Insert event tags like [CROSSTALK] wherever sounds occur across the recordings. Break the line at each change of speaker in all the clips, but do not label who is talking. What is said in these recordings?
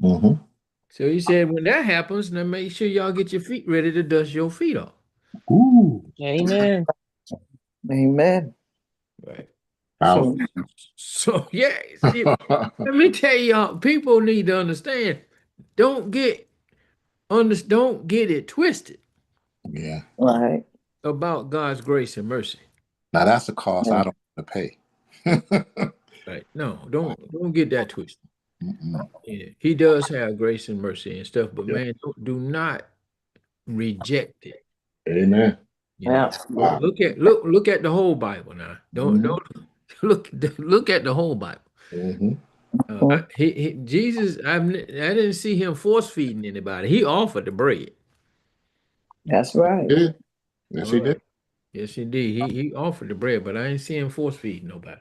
hmm
So he said, when that happens, now make sure y'all get your feet ready to dust your feet off.
Ooh.
Amen.
Amen.
Right.
Wow.
So [LAUGHS] yeah, see, let me tell y'all, people need to understand. Don't get under, don't get it twisted
yeah.
Right.
about God's grace and mercy.
Now that's a cost I don't want to pay.
Right? No, don't don't get that twisted.
Mm-mm.
Yeah, he does have grace and mercy and stuff, but man, don't, do not reject it.
Amen.
you know?
Yeah.
Wow.
Look at look look at the whole Bible now. Don't [LAUGHS]
Mhm.
don't look look at the whole Bible.
hmm
Uh, I- he, he, Jesus, I'm, I didn't see him force feeding anybody. He offered the bread.
That's right.
Yeah. Yes, he did.
Yes, he did. He, he offered the bread, but I ain't see him force feeding nobody.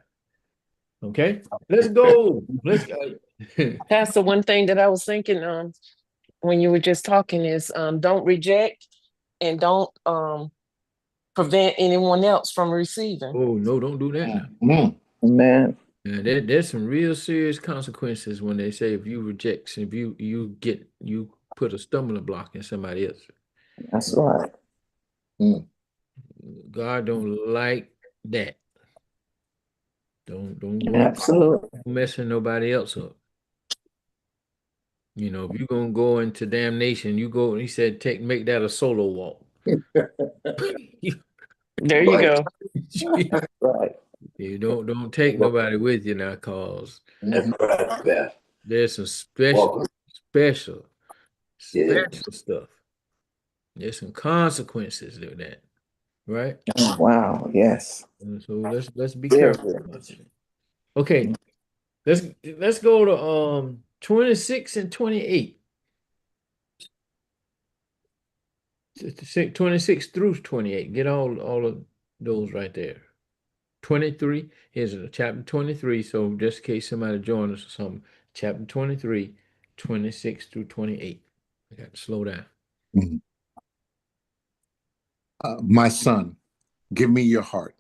Okay, let's go. Let's go. [LAUGHS]
Pastor, one thing that I was thinking, um, when you were just talking is, um, don't reject and don't, um, prevent anyone else from receiving.
oh no, don't do that. Now.
Mm.
Amen.
Now, there, there's some real serious consequences when they say if you reject, if you you get you put a stumbling block in somebody else.
That's right.
God don't like that. Don't don't want
Absolutely.
messing nobody else up. You know, if you're gonna go into damnation, you go. He said, "Take make that a solo walk." [LAUGHS] you,
There you
Right.
go.
Right.
you don't don't take nobody with you now, cause
Mhm.
right. Yeah.
there's some special, special,
Yeah.
special stuff. There's some consequences to that, right?
Wow. Yes.
And Uh, so let's let's be
Very
careful.
good.
about that. Okay, let's let's go to um twenty six and twenty eight. 26 through 28 get all all of those right there 23 here's a chapter 23 so just in case somebody join us or something chapter 23 26 through 28 i got to slow down
Uh, my son, give me your heart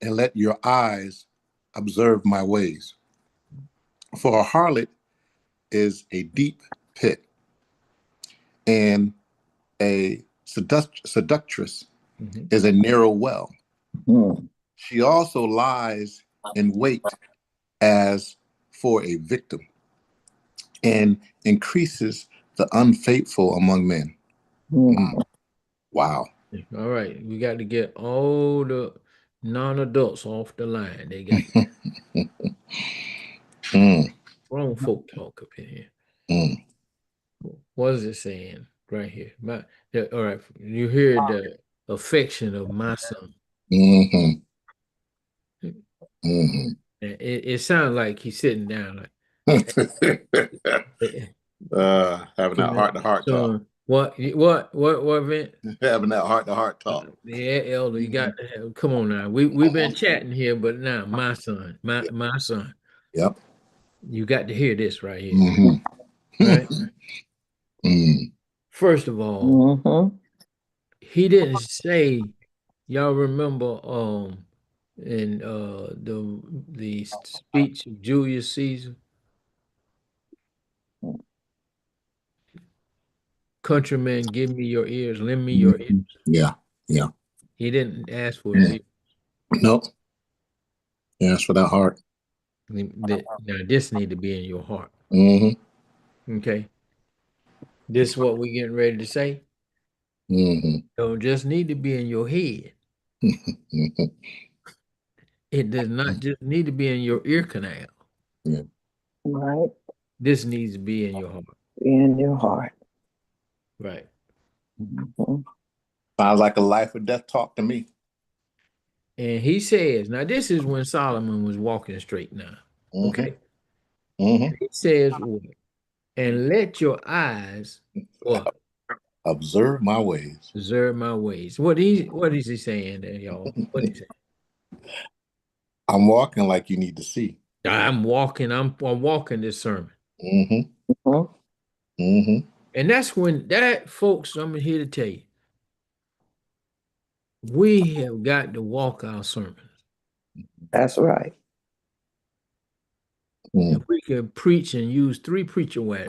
and let your eyes observe my ways. For a harlot is a deep pit, and a seduct- seductress
Mhm.
is a narrow well.
Mm.
She also lies in wait as for a victim and increases the unfaithful among men.
Mm.
Mm-hmm. Wow.
all right we got to get all the non-adults off the line they got
[LAUGHS] Mm,
wrong folk talk up in here
mm.
what is it saying right here my the- all right you hear the affection of my son
Mhm. Mhm.
it, it sounds like he's sitting down like Eh,
[LAUGHS] uh, having that
Amen.
heart to heart talk.
Son, what you- what what what Vin?
Having that heart to heart talk.
Yeah, elder, you
Mhm.
got to have, come on now. We we've been chatting here, but now my son, my
Yeah.
my son,
Yep.
you got to hear this right here.
Mhm.
Mm-hmm. Right?
Mm.
First of all,
Mm-hmm.
he didn't say y'all remember um in uh the the speech of Julius Caesar. Countrymen, give me your ears, lend me your ears.
Yeah.
He didn't ask for his
Yeah.
ears.
Nope. Yeah, it's for that heart.
Now this need to be in your heart.
Mm-hmm.
Okay. This is what we getting ready to say.
Mm-hmm.
Don't just need to be in your head.
Mm-hmm.
It does not just need to be in your ear canal.
Right.
This needs to be in your heart.
In your heart.
Right.
Mhm.
Sounds like a life or death talk to me.
And he says, now this is when Solomon was walking straight now.
Mm-hmm.
Okay.
hmm
He says, what? And let your eyes what?
Observe my ways.
Observe my ways. What he what is he saying there, y'all? What is it?
I'm walking like you need to see.
I'm walking, I'm I'm walking this sermon.
Mm-hmm.
Mhm.
Mm-hmm.
And that's when that, folks, I'm here to tell you. We have got to walk our sermons.
That's right.
If we could preach and use three preacher wives.